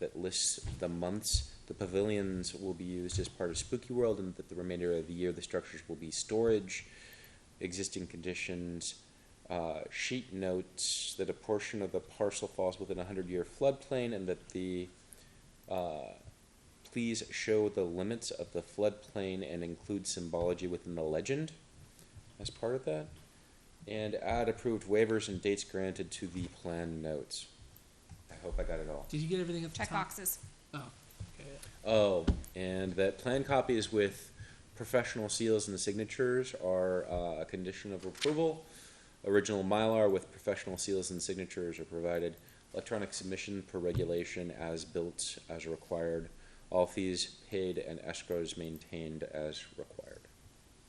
that lists the months the pavilions will be used as part of Spooky World, and that the remainder of the year the structures will be storage, existing conditions. Uh, sheet notes that a portion of the parcel falls within a hundred-year floodplain, and that the uh, please show the limits of the floodplain and include symbology within the legend as part of that. And add approved waivers and dates granted to the plan notes. I hope I got it all. Did you get everything at the Check top? boxes. Oh, okay. Oh, and that plan copies with professional seals and the signatures are uh, a condition of approval. Original Mylar with professional seals and signatures are provided. Electronic submission per regulation as built as required. All fees paid and escrows maintained as required.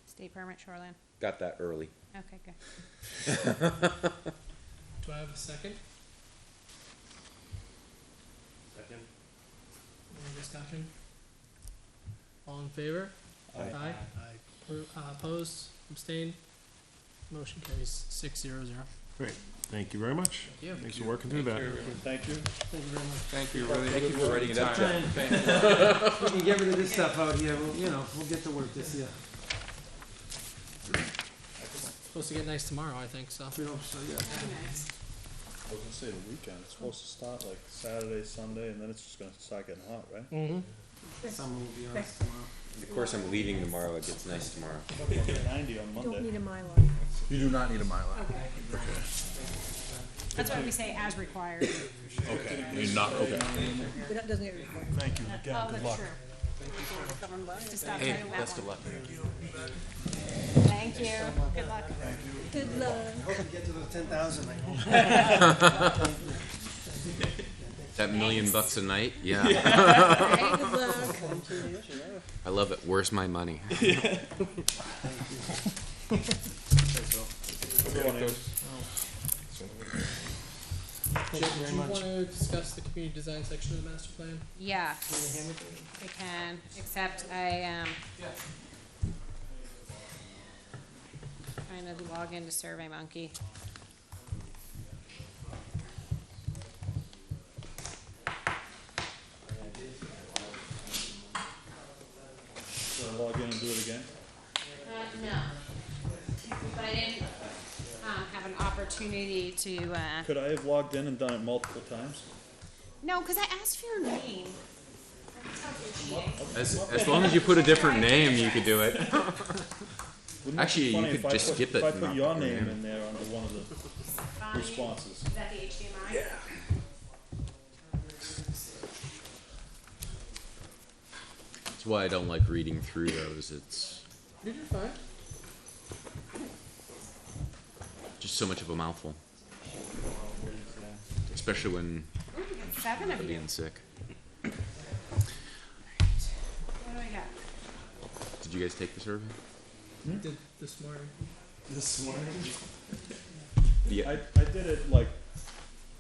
State permit shoreline. Got that early. Okay, good. Do I have a second? Second. Any discussion? All in favor? Aye. Appro- Uh, opposed, abstained? Motion carries six zero zero. Great, thank you very much. Yeah. Thanks for working through that. Thank you. Thank you very much. Thank you, really. Thank you for writing it up, Jeff. We can get rid of this stuff out here, we'll, you know, we'll get to work this year. Supposed to get nice tomorrow, I think, so. If we don't, so, yeah. I was gonna say the weekend, it's supposed to start like Saturday, Sunday, and then it's just gonna start getting hot, right? Mm-hmm. Summer will be on us tomorrow. Of course, I'm leaving tomorrow. It gets nice tomorrow. It'll be Ninety on Monday. a Mylar. You do not need a Mylar. That's why we say as required. Okay, you're not, okay. That doesn't get recorded. Thank you again, Oh, good that's luck. true. Just stop Hey, writing that best of one. luck. Thank you. Good luck. Good luck. I hope we get to the ten thousand, I hope. That million bucks a night? Yeah. Good luck. I love it. Where's my money? Do you wanna discuss the community design section of the master plan? Yeah. We can, except I, um, trying to log into Survey Monkey. So log in and do it again. Uh, no. But I didn't, um, have an opportunity to, uh, Could I have logged in and done it multiple times? no, cause I asked for your name. As, as long as you put a different name, you could do it. Wouldn't it Actually, be you funny could if I just put- skip it If I and put not your put your name name. in there under one of the responses. Is that the HDMI? Yeah. That's why I don't like reading through those. It's You're fine. just so much of a mouthful. Especially when Seven of you. being sick. What do I got? Did you guys take the survey? Did this morning. This morning? I, Yeah. I did it like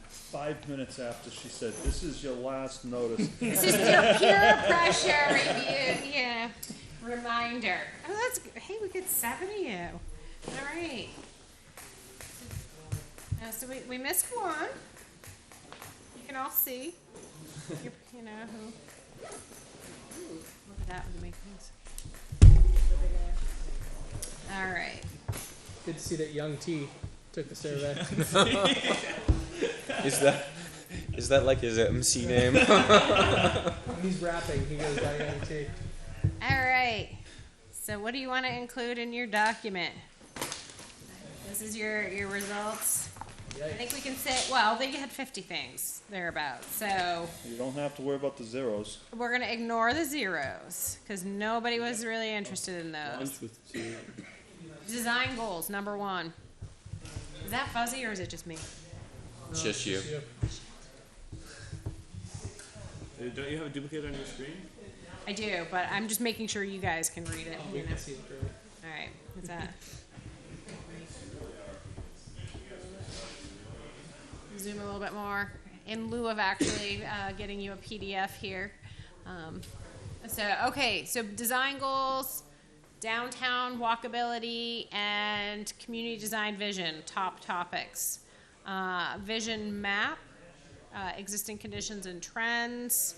five minutes after she said, this is your last notice. This is your peer pressure review, yeah, reminder. Oh, that's, g- hey, we get seven of you. All right. Uh, so we, we missed one. You can all see. You, you know who. Ooh, Look at that with the makings. All right. Good to see that Young T took the survey. Is that is that like his MC name? He's rapping, he goes by Young T. All right. So what do you want to include in your document? This is your, your results. I think we can say, well, they had fifty things thereabouts, so You don't have to worry about the zeros. we're gonna ignore the zeros, cause nobody was really interested in those. Design goals, number one. Is that fuzzy or is it just me? it's just you. Don't you have a duplicate on your screen? I do, but I'm just making sure you guys can read it, you know? See it through. All right, what's that? Zoom a little bit more in lieu of actually uh, getting you a PDF here. Um, so, okay, so design goals, downtown walkability, and community design vision, top topics. Uh, vision map, uh, existing conditions and trends.